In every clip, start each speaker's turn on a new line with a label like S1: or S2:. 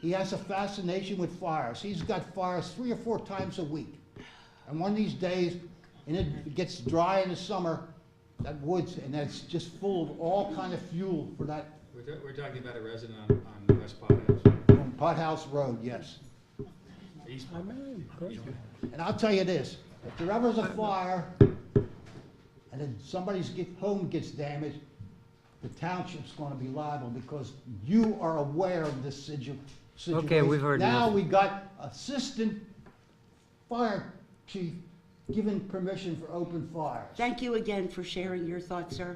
S1: He has a fascination with fires. He's got fires three or four times a week. And one of these days, and it gets dry in the summer, that woods, and that's just full of all kind of fuel for that
S2: We're, ta- we're talking about a resident on, on West Pot House,
S1: um, Pothouse Road, yes.
S2: East Pot House.
S1: And I'll tell you this, if there ever's a fire, and then somebody's get, home gets damaged, the township's gonna be liable, because you are aware of this situ- situation.
S3: Okay, we've heard
S1: Now,
S3: enough.
S1: we got assistant fire chief given permission for open fires.
S4: Thank you again for sharing your thoughts, sir.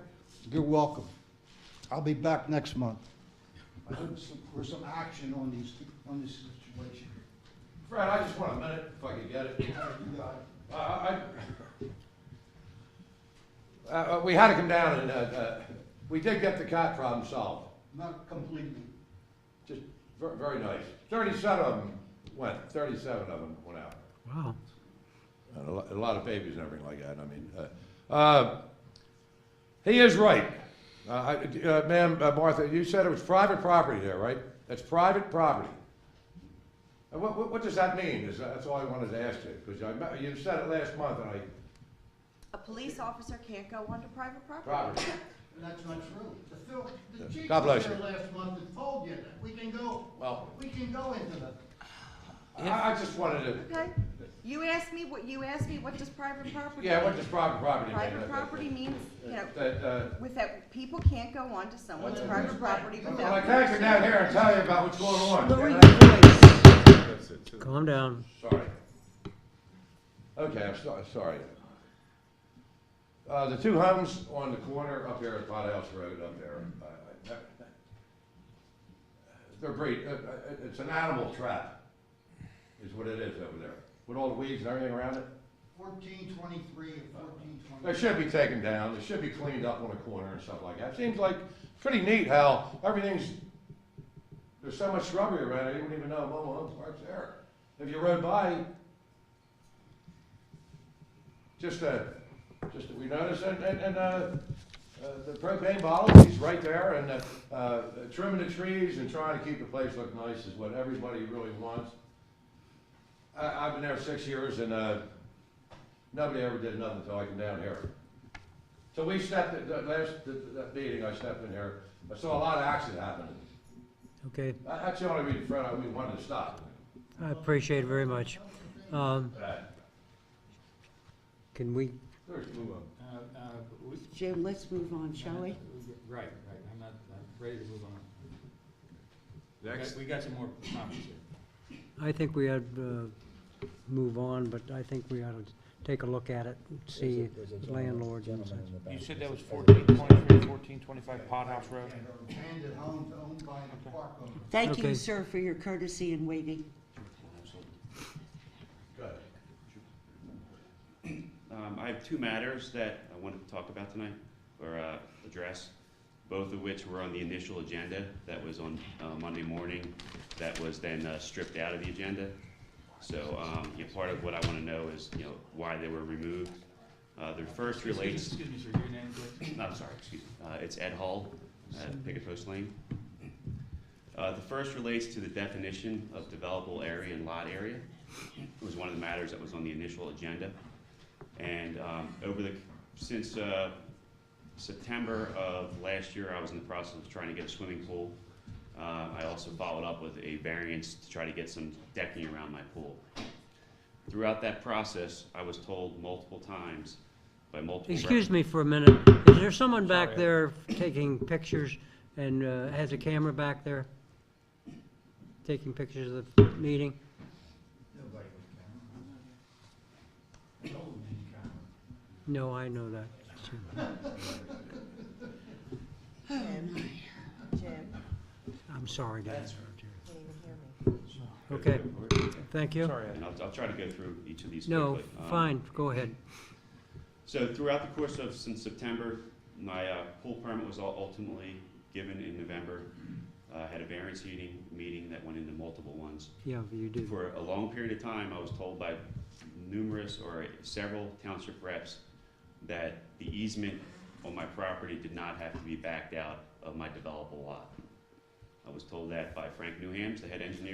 S1: You're welcome. I'll be back next month. I hope some- for some action on these, on this situation.
S5: Fred, I just want a minute, if I could get it.
S1: You got it.
S5: I- I, I, uh, uh, we had to come down and, uh, uh, we did get the cat problem solved,
S1: Not completely.
S5: just ver- very nice. Thirty-seven of them went, thirty-seven of them went out.
S3: Wow.
S5: And a lot, a lot of babies and everything like that, I mean, uh, uh, he is right. Uh, I, uh, ma'am, uh, Martha, you said it was private property there, right? That's private property. And what, what, what does that mean? Is, that's all I wanted to ask you, because I, me- you said it last month and I,
S6: A police officer can't go onto private property.
S5: property.
S1: And that's not true. The Phil, the
S5: Yeah.
S1: chief
S5: God
S1: was
S5: bless
S1: here
S5: you.
S1: last month and told you that. We can go,
S5: Well,
S1: we can go into the,
S5: I, I just wanted to,
S6: Okay? You asked me what, you asked me what does private property?
S5: yeah, what
S6: mean?
S5: does private property mean?
S6: Private property means, you know,
S5: That, uh,
S6: without, people can't go onto someone's
S1: Uh,
S6: private property
S5: well, I
S6: without.
S5: can't come down here and tell you about what's going on.
S4: Lower your
S5: can I?
S4: voice.
S3: Calm down.
S5: Sorry. Okay, I'm so, sorry. Uh, the two homes on the corner up here at Pot House Road up there, uh, I- I- they're breed, uh, uh, it's an animal trap, is what it is over there, with all the weeds and everything around it.
S1: fourteen twenty-three and fourteen
S5: They
S1: twenty.
S5: should be taken down, they should be cleaned up on a corner and stuff like that. Seems like pretty neat how everything's, there's so much shrubbery around it, you wouldn't even know Momo Homes Park's there. If you rode by, just, uh, just, we noticed, and, and, and, uh, uh, the propane bottle, he's right there, and, uh, uh, trimming the trees and trying to keep the place look nice is what everybody really wants. I, I've been there six years and, uh, Nobody ever did nothing until I came down here. So we stepped, at the last, the, that meeting, I stepped in here, I saw a lot of accident happening.
S3: Okay,
S5: That- That's the only reason, Fred, I, we wanted to stop.
S3: I appreciate it very much. Um,
S5: Uh,
S3: Can we,
S5: There's, move on.
S2: Uh, uh, we-
S4: Jim, let's move on, shall we?
S2: Right, right, I'm not, I'm ready to move on. We got-
S5: Next.
S2: We got some more comments here.
S3: I think we ought to uh, move on, but I think we ought to take a look at it, and see landlords and such.
S7: You said that was fourteen twenty-three, fourteen twenty-five Pot House Road?
S1: Handed home to owned by the park owner.
S4: Thank
S3: Okay.
S4: you, sir, for your courtesy in waiting.
S5: Go ahead.
S8: Um, I have two matters that I wanted to talk about tonight, or uh, address, both of which were on the initial agenda that was on uh, Monday morning, that was then uh, stripped out of the agenda. So, um, you know, part of what I want to know is, you know, why they were removed. Uh, The first
S2: Excuse me-
S8: relates,
S2: Excuse me, sir, your name, please?
S8: I'm sorry, excuse me, Uh, it's Ed Hall, at Picket Post Lane. Uh, The first relates to the definition of developable area and lot area. It was one of the matters that was on the initial agenda. And um, over the, since uh, September of last year, I was in the process of trying to get a swimming pool. Uh, I also followed up with a variance to try to get some decking around my pool. Throughout that process, I was told multiple times by multiple. rep-
S3: Excuse me for a minute. Is there someone back there taking pictures and uh, has a camera back there? Taking pictures of the meeting?
S1: Nobody would count. No, they didn't count.
S3: No, I know that.
S6: Jim, Jim,
S3: I'm sorry, guys.
S6: can't even hear me.
S3: Okay, thank you.
S7: Sorry, I-
S8: And I'll, I'll try to go through each of these
S3: No,
S8: quickly. Um,
S3: fine, go ahead.
S8: So throughout the course of, since September, my uh, pool permit was ul- ultimately given in November. Uh, Had a variance heating meeting that went into multiple ones.
S3: Yeah, you did.
S8: For a long period of time, I was told by numerous or several township reps that the easement on my property did not have to be backed out of my developable lot. I was told that by Frank Newhams, the head engineer